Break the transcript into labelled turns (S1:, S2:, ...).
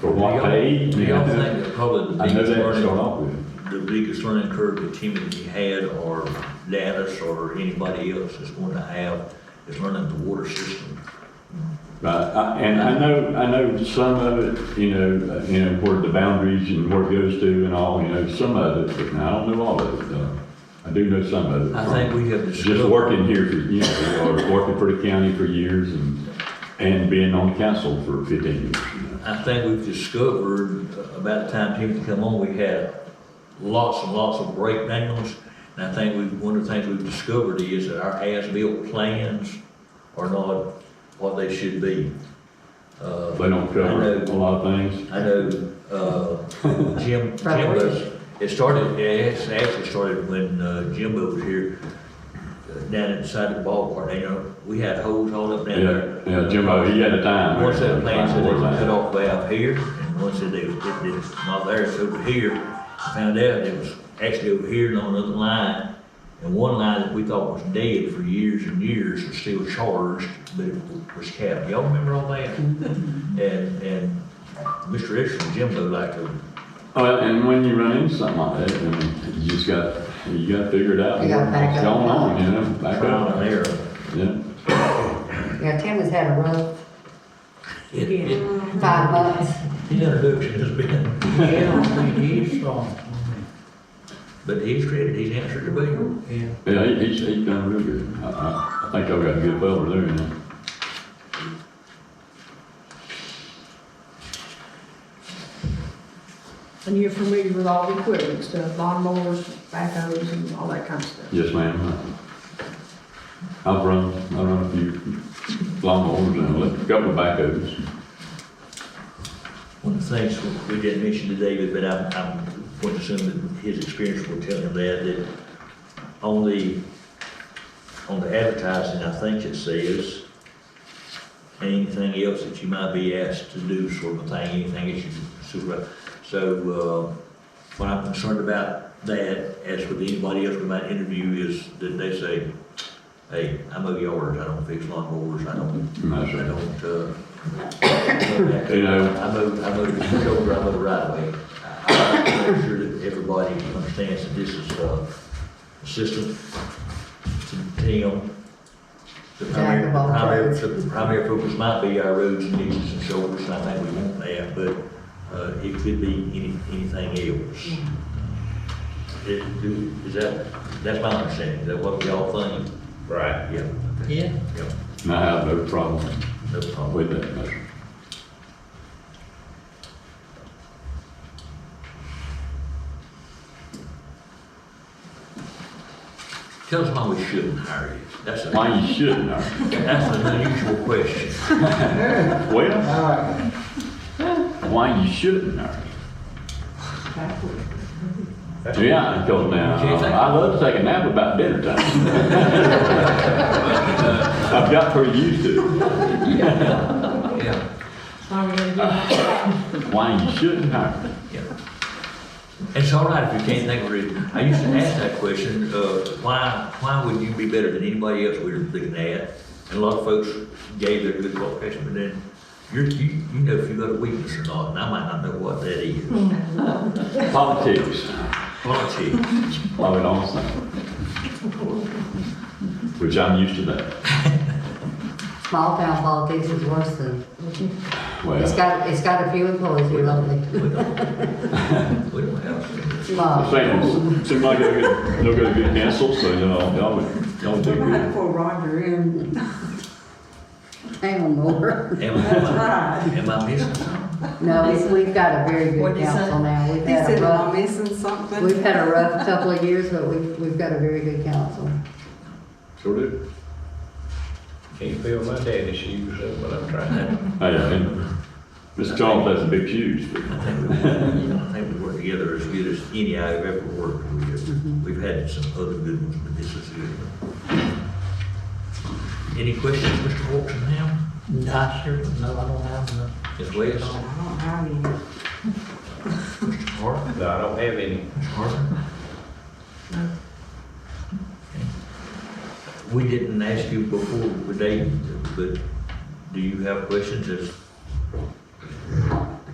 S1: For what paid?
S2: Do y'all think that probably the
S1: I know
S2: biggest
S1: that to start
S2: learning,
S1: off with.
S2: the biggest learning curve that Timothy had, or Dallas, or anybody else is going to have, is learning the water system?
S1: Right, I- uh, and I know, I know some of it, you know, uh, you know, where the boundaries and where it goes to and all, you know, some of it, but I don't know all of it, though. I do know some of it.
S2: I think we have discovered.
S1: Just working here for, you know, or working for the county for years and, and being on council for fifteen years, you know.
S2: I think we've discovered, uh, about the time Timothy come on, we had lots and lots of breakdowns. And I think we've, one of the things we've discovered is that our as-built plans are not what they should be. Uh,
S1: They don't cover
S2: I
S1: a
S2: know-
S1: lot of things.
S2: I know, uh, Jim, Jim was, it started, it actually- actually started when uh, Jimbo was here, uh, down inside the ballpark, you know, we had holes all up down there.
S1: Yeah, yeah, Jimbo, he had a time.
S2: One set of plans said they
S1: Time.
S2: was cut off valve here, and one said they was, it was not there, it's over here. Found out it was actually over here and on another line, and one line that we thought was dead for years and years was still charged, but it was capped. Y'all remember all that? And, and Mr. Extra and Jimbo like to
S1: Uh, and when you run into something like that, I mean, you just got, you gotta figure it out.
S3: You gotta back
S1: what's
S3: up.
S1: Going on, you know, back
S2: trial
S1: up,
S2: and error.
S1: yeah.
S3: Yeah, Tim has had a rough
S2: It- it-
S3: five months.
S2: His introduction has been,
S4: Yeah, he's strong.
S2: but he's credit, he's answered the bell.
S4: Yeah.
S1: Yeah, he, he's, he's done real good. I, I, I think y'all got a good fella there, you know.
S5: And you're familiar with all the equipment, stuff, lawnmowers, backhoes, and all that kind of stuff.
S1: Yes, ma'am. I've run, I've run a few lawnmowers and a couple of backhoes.
S2: One of the things we didn't mention to David, but I'm, I'm going to assume that his experience will tell him that, that on the, on the advertising, I think it says, anything else that you might be asked to do sort of thing, anything that you supervise. So, uh, what I'm concerned about that, as with anybody else we might interview, is that they say, hey, I mow yards, I don't fix lawnmowers, I don't
S1: And that's
S2: I
S1: right.
S2: don't, uh.
S1: You know.
S2: I move, I move, I go where I move right away. I I like to make sure that everybody understands that this is, uh, assistant to Tim. The primary,
S3: Jack of all
S2: primary,
S3: trades.
S2: the primary focus might be our roads and ditches and shoulders, and I think we want that, but, uh, it could be any, anything else. It- do- Is that, that's my understanding, is that what y'all think?
S6: Right.
S2: Yeah.
S4: Yeah.
S2: Yeah,
S1: And I have no problem
S2: no problem.
S1: with that motion.
S2: Tell us why we shouldn't hire you. That's a,
S1: Why you shouldn't, uh,
S2: that's an unusual question.
S1: well,
S4: All right.
S1: why you shouldn't, uh, yeah, because now, I love to take a nap about dinner time. I've got pretty used to it.
S2: Yeah,
S1: Why you shouldn't hire.
S2: yeah. It's all right if you can't think of a reason. I used to ask that question, uh, why, why would you be better than anybody else we were looking at? And a lot of folks gave their good qualification, but then you're, you, you know if you got a weakness or not, and I might not know what that is.
S1: Politics,
S2: Politics.
S1: love it all, so. Which I'm used to that.
S3: Small town politics is worse than, it's
S1: Well,
S3: got, it's got a few employees who are lovely.
S2: We don't we don't have.
S3: Love.
S1: same, seem like they'll get, they'll get a good pencil, so y'all, y'all would, y'all would do good.
S7: For Roger in
S3: Hang more.
S2: Am I,
S7: Right.
S2: am I missing something?
S3: No, we- we've got a very good
S7: What'd he say?
S3: council now. We've
S7: He
S3: had
S7: said,
S3: a
S7: am I
S3: rough,
S7: missing something?
S3: we've had a rough couple of years, but we've, we've got a very good council.
S1: Sure do.
S6: Can't fill my daddy's shoes, that's what I'm trying to.
S1: Hey, and Mr. Charles has some big shoes, but
S2: I think we, I think we work together as good as any I've ever worked with. We've had some other good ones, but this is a good one. Any questions, Mr. Wilson, now?
S4: I sure, no, I don't have none.
S2: Ms. West,
S7: I don't have any.
S2: Mr. Hart,
S6: No, I don't have any.
S2: Mr. Hart? We didn't ask you before today, but do you have questions as